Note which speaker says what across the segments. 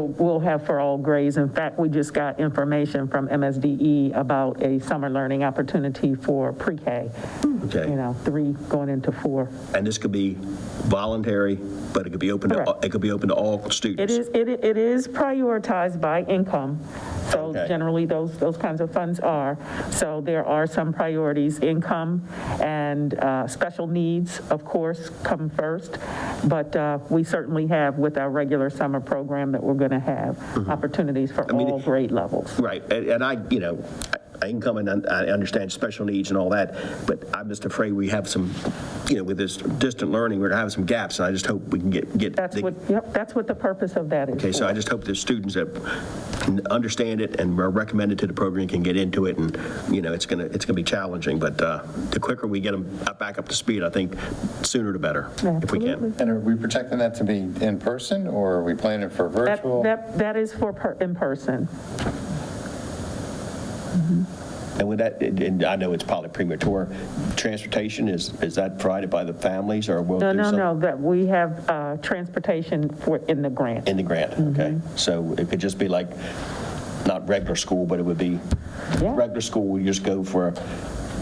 Speaker 1: We'll have for all grades. In fact, we just got information from MSDE E about a summer learning opportunity for pre-K.
Speaker 2: Okay.
Speaker 1: You know, three going into four.
Speaker 2: And this could be voluntary, but it could be open to,
Speaker 1: Correct.
Speaker 2: it could be open to all
Speaker 1: It
Speaker 2: students.
Speaker 1: is, it i- it is prioritized by income, so
Speaker 2: Okay.
Speaker 1: generally, those, those kinds of funds are. So there are some priorities, income and uh, special needs, of course, come first, but uh, we certainly have with our regular summer program that we're going to have opportunities for
Speaker 2: Mm-hmm. mean,
Speaker 1: all grade levels.
Speaker 2: Right, and and I, you know, I- I can come in, and I understand special needs and all that, but I'm just afraid we have some, you know, with this distant learning, we're gonna have some gaps, and I just hope we can get, get.
Speaker 1: That's
Speaker 2: the-
Speaker 1: what, yep, that's what the purpose of that is.
Speaker 2: Okay, so I just hope the students that n- understand it and are recommended to the program can get into it, and, you know, it's gonna, it's gonna be challenging, but uh, the quicker we get them back up to speed, I think, sooner the better, if we can.
Speaker 3: And are we projecting that to be in person, or are we planning for
Speaker 1: That,
Speaker 3: virtual?
Speaker 1: that that is for per- in person.
Speaker 2: And with that, and- and I know it's probably premature, transportation, is, is that provided by the families, or will do
Speaker 1: No,
Speaker 2: some?
Speaker 1: no, no, that we have uh, transportation for, in the grant.
Speaker 2: In the grant,
Speaker 1: Mm-hmm.
Speaker 2: okay? So it could just be like, not regular school, but it would be,
Speaker 1: Yeah.
Speaker 2: regular school, you just go for a block,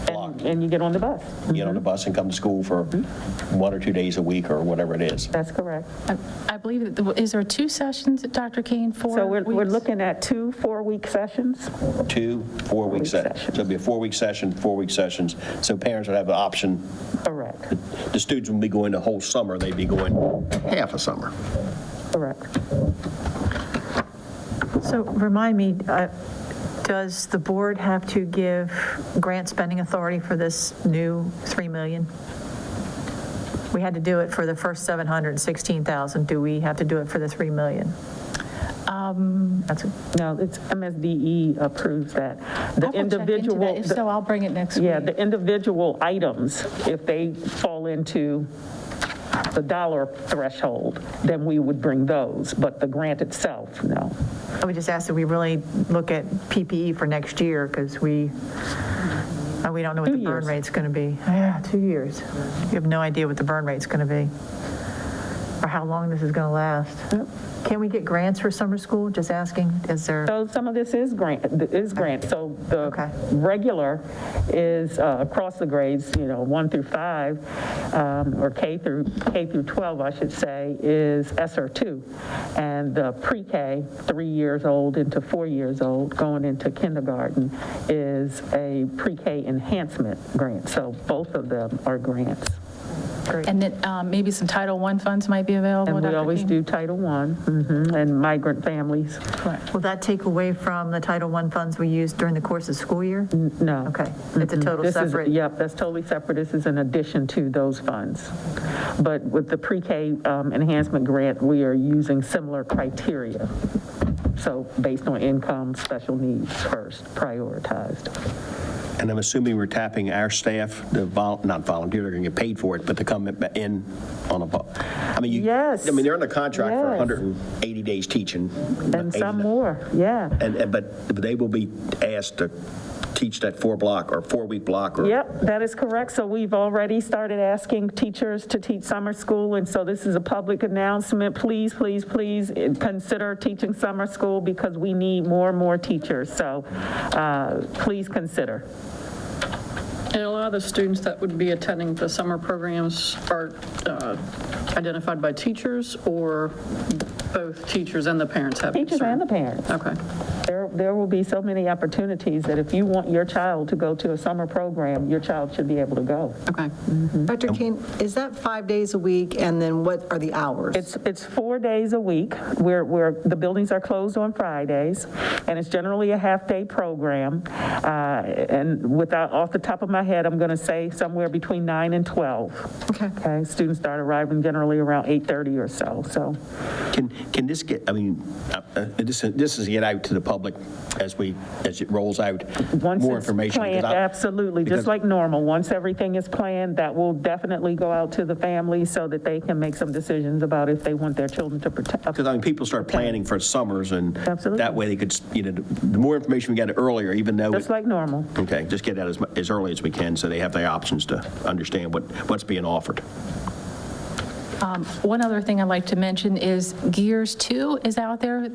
Speaker 1: And and you get on the bus.
Speaker 2: get on the bus and come to school for
Speaker 1: Mm-hmm.
Speaker 2: one or two days a week, or whatever it is.
Speaker 1: That's correct.
Speaker 4: I- I believe, that the- is there two sessions, Dr. Kane, four
Speaker 1: So we're, we're
Speaker 4: weeks?
Speaker 1: looking at two four-week sessions.
Speaker 2: Two,
Speaker 1: Four-week
Speaker 2: four-week sessions. So it'd be a four-week session, four-week sessions, so parents would have an option.
Speaker 1: Correct,
Speaker 2: The students wouldn't be going the whole summer, they'd be going half a summer.
Speaker 1: correct.
Speaker 5: So remind me, uh, does the board have to give grant spending authority for this new 3 million? We had to do it for the first 716,000. Do we have to do it for the 3 million? That's,
Speaker 1: No, it's MSDE E approves that. The
Speaker 4: I'll check into that.
Speaker 1: individual,
Speaker 4: If so, I'll bring it next week.
Speaker 1: yeah, the individual items, if they fall into the dollar threshold, then we would bring those, but the grant itself, no.
Speaker 5: I would just ask that we really look at PPE for next year because we, uh, we don't know what
Speaker 1: Two
Speaker 5: the burn
Speaker 1: years.
Speaker 5: rate's going to be. Yeah, two years. You have no idea what the burn rate's going to be or how long this is going to last. Can we get grants for summer school? Just asking, is there?
Speaker 1: So some of this is grant, is grant, so the
Speaker 5: Okay.
Speaker 1: regular is uh, across the grades, you know, 1 through 5, um, or K through, K through 12, I should say, is ESER 2. And the pre-K, 3 years old into 4 years old, going into kindergarten, is a pre-K enhancement grant, so both of them are grants.
Speaker 4: And then um, maybe some Title I funds might be available,
Speaker 1: And we
Speaker 4: Dr.
Speaker 1: always
Speaker 4: Kane?
Speaker 1: do Title I, mhm, and migrant families,
Speaker 5: Will that take away from the Title I funds we used during the course of school year?
Speaker 1: no.
Speaker 5: Okay, it's a total
Speaker 1: This is-
Speaker 5: separate.
Speaker 1: Yep, that's totally separate. This is in addition to those funds. But with the pre-K um, enhancement grant, we are using similar criteria. So based on income, special needs first, prioritized.
Speaker 2: And I'm assuming we're tapping our staff, the vol, not volunteer, they're going to get paid for it, but to come in on a, vol- I mean, you.
Speaker 1: Yes.
Speaker 2: I mean, they're under contract for
Speaker 1: Yes.
Speaker 2: 180 days teaching.
Speaker 1: And some more, yeah.
Speaker 2: And, and- but but they will be asked to teach that four block or four-week block or.
Speaker 1: Yep, that is correct. So we've already started asking teachers to teach summer school, and so this is a public announcement. Please, please, please eh, consider teaching summer school because we need more and more teachers. So uh, please consider.
Speaker 6: And a lot of the students that would be attending the summer programs are uh, identified by teachers or both teachers and the parents have concern?
Speaker 1: Teachers and the parents.
Speaker 6: Okay.
Speaker 1: There, there will be so many opportunities that if you want your child to go to a summer program, your child should be able to go.
Speaker 6: Okay.
Speaker 7: Dr. Kane, is that five days a week, and then what are the hours?
Speaker 1: It's, it's four days a week, where, where the buildings are closed on Fridays, and it's generally a half-day program. Uh, And without, off the top of my head, I'm going to say somewhere between 9 and 12.
Speaker 7: Okay.
Speaker 1: Okay, students start arriving generally around 8:30 or so, so.
Speaker 2: Can, can this get, I mean, uh, uh, this, is- this is get out to the public as we, as it rolls out
Speaker 1: once
Speaker 2: more
Speaker 1: it's
Speaker 2: information? 'cause
Speaker 1: planned,
Speaker 2: I-
Speaker 1: Absolutely, just
Speaker 2: because-
Speaker 1: like normal. Once everything is planned, that will definitely go out to the families so that they can make some decisions about if they want their children to uh, protect.
Speaker 2: Because I mean, people start planning for summers and
Speaker 1: Absolutely.
Speaker 2: that way they could, you know, the more information we get earlier, even though.
Speaker 1: Just
Speaker 2: it-
Speaker 1: like normal.
Speaker 2: Okay, just get that as, mu- as early as we can so they have the options to understand what, what's being offered.
Speaker 4: One other thing I'd like to mention is Gears 2 is out there.